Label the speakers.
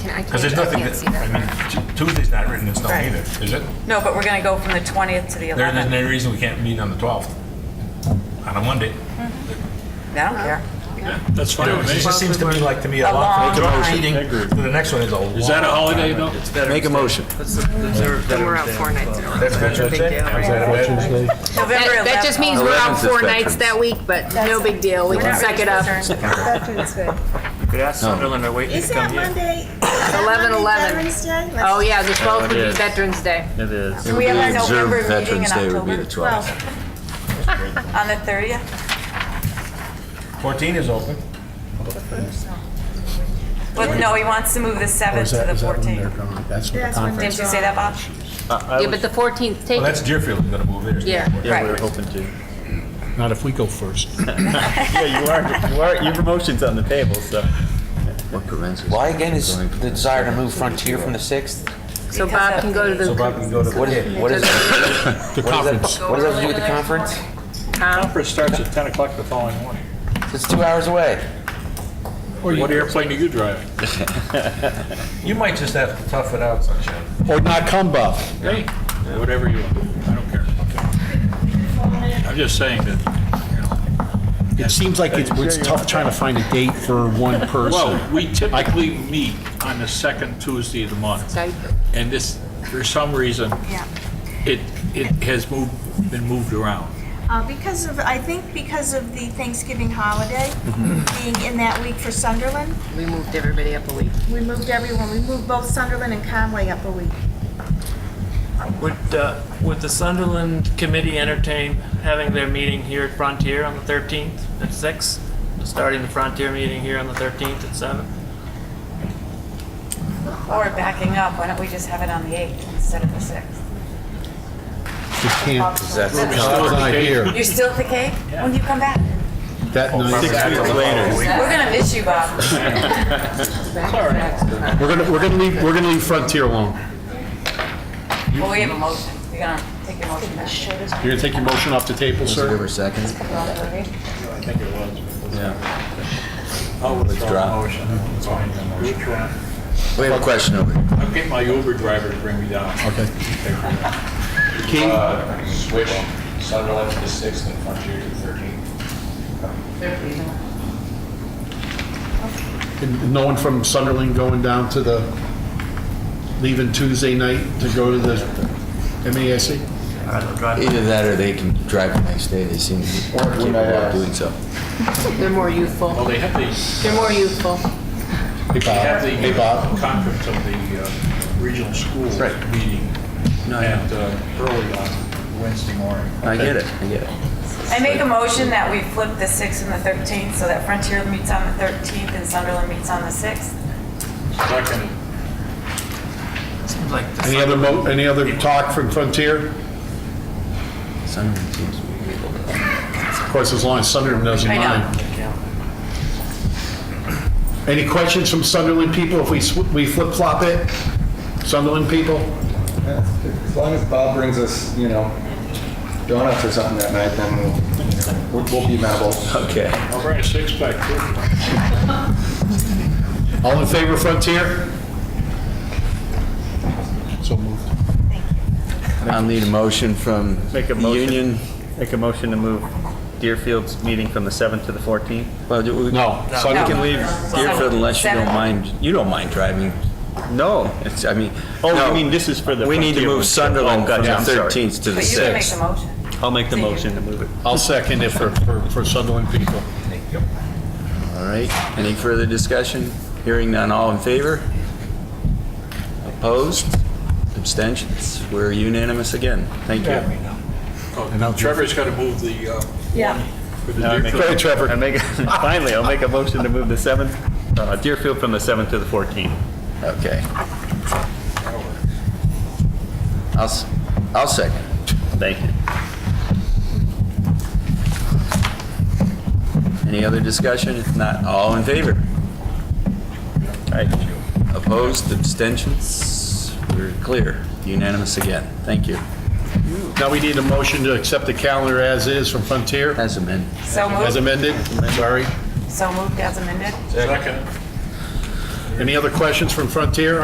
Speaker 1: Can I
Speaker 2: Because
Speaker 1: can't,
Speaker 2: there's
Speaker 1: I
Speaker 2: nothing,
Speaker 1: can't see
Speaker 2: that- I
Speaker 1: that.
Speaker 2: mean, Tu- Tuesday's not written in stone
Speaker 3: Right.
Speaker 2: either, is it?
Speaker 3: No, but we're going to go from the 20th to the
Speaker 2: There isn't
Speaker 3: 11th.
Speaker 2: any reason we can't meet on the 12th, on a Monday.
Speaker 3: I don't care.
Speaker 4: That's fine
Speaker 2: It
Speaker 4: with me.
Speaker 2: just seems to me like to me a
Speaker 3: A long
Speaker 2: long,
Speaker 3: time.
Speaker 2: long meeting, the next one is a long.
Speaker 4: Is that a holiday though?
Speaker 5: Make a motion.
Speaker 1: And we're out four nights in a row.
Speaker 2: That's Veterans Day? Is that a Veterans Day?
Speaker 3: November
Speaker 1: That
Speaker 3: 11th.
Speaker 1: that just means we're out
Speaker 5: Eleventh is
Speaker 1: four nights
Speaker 5: Veterans.
Speaker 1: that week, but no big deal. We can suck it up.
Speaker 6: Could ask Sunderland or wait to
Speaker 7: Is that
Speaker 6: come here.
Speaker 7: Monday?
Speaker 1: Eleven, eleven.
Speaker 7: Veterans Day? Let's-
Speaker 1: Oh, yeah, the 12th would
Speaker 6: it
Speaker 1: be
Speaker 6: is.
Speaker 1: Veterans Day.
Speaker 6: It is.
Speaker 3: We have our
Speaker 5: Observe
Speaker 3: November meeting in
Speaker 5: Veterans Day would be
Speaker 3: October
Speaker 5: the 12th.
Speaker 3: on the 30th.
Speaker 2: 14 is open.
Speaker 3: But no, he wants to move the 7th to the 14th.
Speaker 8: gone? That's
Speaker 7: That's when
Speaker 3: Didn't you say that, Bob?
Speaker 6: I
Speaker 1: Yeah, but
Speaker 6: was-
Speaker 1: the 14th, take
Speaker 2: Well,
Speaker 1: it.
Speaker 2: that's Deerfield is going to move theirs.
Speaker 1: Yeah.
Speaker 6: Yeah, we were
Speaker 3: Right.
Speaker 6: hoping to.
Speaker 8: Not if we go first.
Speaker 6: Yeah, you are, you are, your motion's on the table, so.
Speaker 5: What prevents us?
Speaker 9: Why again is
Speaker 5: from
Speaker 9: the
Speaker 5: going-
Speaker 9: desire to move Frontier from the 6th?
Speaker 1: So Bob can go to
Speaker 2: So Bob
Speaker 1: the
Speaker 2: can go to.
Speaker 9: What is, what is, what
Speaker 8: The
Speaker 9: is
Speaker 8: conference.
Speaker 9: that, what does that have to do with the conference?
Speaker 1: con.
Speaker 4: Conference starts at 10 o'clock the following morning.
Speaker 9: It's two hours away.
Speaker 4: What airplane are you driving?
Speaker 2: You might just have to tough it out, Sunshine.
Speaker 8: Or not come, Buff.
Speaker 4: Hey, whatever you want. I don't care. I'm just saying that,
Speaker 8: It seems like it's it's tough trying to find a date for one person.
Speaker 4: well, we typically meet on the second Tuesday of the month.
Speaker 1: So
Speaker 4: And this, for some reason,
Speaker 3: Yeah.
Speaker 4: it, it has moved, been moved around.
Speaker 7: Uh, Because of, I think because of the Thanksgiving holiday
Speaker 6: Mm-hmm.
Speaker 7: being in that week for Sunderland,
Speaker 1: We moved everybody up a week.
Speaker 7: we moved everyone, we moved both Sunderland and Conway up a week.
Speaker 6: Would, uh, would the Sunderland committee entertain having their meeting here at Frontier on the 13th at 6? Starting the Frontier meeting here on the 13th at 7?
Speaker 3: Or backing up, why don't we just have it on the 8th instead of the 6th?
Speaker 8: We can't,
Speaker 9: That's the
Speaker 8: Bob's not here.
Speaker 3: You're still at the cake? When do you come back?
Speaker 8: That
Speaker 5: Oh,
Speaker 8: night,
Speaker 3: We're going to miss you, Bob.
Speaker 8: we're gonna, we're gonna leave, we're gonna leave Frontier alone.
Speaker 3: Well, we have a motion. We're going to take your motion back.
Speaker 8: You're gonna take your motion off the table,
Speaker 5: Is there
Speaker 8: sir?
Speaker 5: a second? Yeah.
Speaker 2: Oh,
Speaker 4: I'll
Speaker 5: Withdraw.
Speaker 4: withdraw the motion. Withdraw.
Speaker 5: We have a question over here.
Speaker 4: I'll get my Uber driver to bring me down. Uh,
Speaker 8: Okay. Key?
Speaker 10: switch Sunderland to the 6th and Frontier to the 13th.
Speaker 8: And No one from Sunderland going down to the, leaving Tuesday night to go to the MASC?
Speaker 5: Either that or they can drive the next day. They seem capable of doing so.
Speaker 1: They're more
Speaker 4: Well,
Speaker 1: youthful.
Speaker 4: they have the,
Speaker 1: They're more youthful.
Speaker 8: Hey, Bob.
Speaker 4: they have
Speaker 8: Hey, Bob.
Speaker 4: the conference of the uh, regional school meeting at, uh, early on Wednesday morning.
Speaker 5: I get it, I get it.
Speaker 3: I make a motion that we flip the 6th and the 13th so that Frontier meets on the 13th and Sunderland meets on the 6th.
Speaker 4: Second,
Speaker 6: Seems like the
Speaker 8: Any other mo, any other talk from Frontier?
Speaker 5: Sunderland seems to be able to.
Speaker 8: Of course, as long as Sunderland doesn't
Speaker 3: I know.
Speaker 8: mind. Any questions from Sunderland people if we, sw- we flip-flop it? Sunderland people?
Speaker 10: As long as Bob brings us, you know, donuts or something that night, then we'll- we'll we'll be amenable.
Speaker 5: Okay.
Speaker 4: I'll bring a six-pack too.
Speaker 8: All in favor of Frontier? So moved.
Speaker 5: I'll need a motion from
Speaker 6: Make a motion.
Speaker 5: Union.
Speaker 6: Make a motion to move Deerfield's meeting from the 7th to the 14th?
Speaker 5: Well, do we-
Speaker 8: No,
Speaker 5: We
Speaker 8: Sunderland,
Speaker 5: can leave Deerfield unless you don't
Speaker 3: Seven.
Speaker 5: mind, you don't mind driving.
Speaker 6: No.
Speaker 5: It's, I mean.
Speaker 6: Oh, you
Speaker 5: no.
Speaker 6: mean this is for the
Speaker 5: We need to
Speaker 6: Frontier
Speaker 5: move
Speaker 6: one.
Speaker 5: Sunderland
Speaker 6: Oh,
Speaker 5: from
Speaker 6: gotcha,
Speaker 5: the
Speaker 6: I'm sorry.
Speaker 5: 13th to the
Speaker 3: But you can make the
Speaker 5: 6th.
Speaker 3: motion.
Speaker 6: I'll make the motion to move it.
Speaker 8: I'll second it for, for for Sunderland people.
Speaker 5: All right, any further discussion? Hearing none, all in favor? Opposed? Abstentions? We're unanimous again. Thank you.
Speaker 4: Oh, Trevor's got to move the, uh,
Speaker 3: Yeah.
Speaker 4: for
Speaker 6: Now I
Speaker 4: the
Speaker 6: make-
Speaker 4: Deerfield.
Speaker 6: I make- Finally, I'll make a motion to move the 7th, uh, Deerfield from the 7th to the 14th.
Speaker 5: Okay. I'll, s- I'll second.
Speaker 6: Thank you.
Speaker 5: Any other discussion? If not, all in favor? Opposed? Abstentions? We're clear. Unanimous again. Thank you.
Speaker 8: Now we need a motion to accept the calendar as is from Frontier,
Speaker 5: Has amended.
Speaker 3: So
Speaker 8: as
Speaker 3: moved,
Speaker 8: amended, sorry.
Speaker 3: so moved as amended.
Speaker 4: Second. Any other questions from Frontier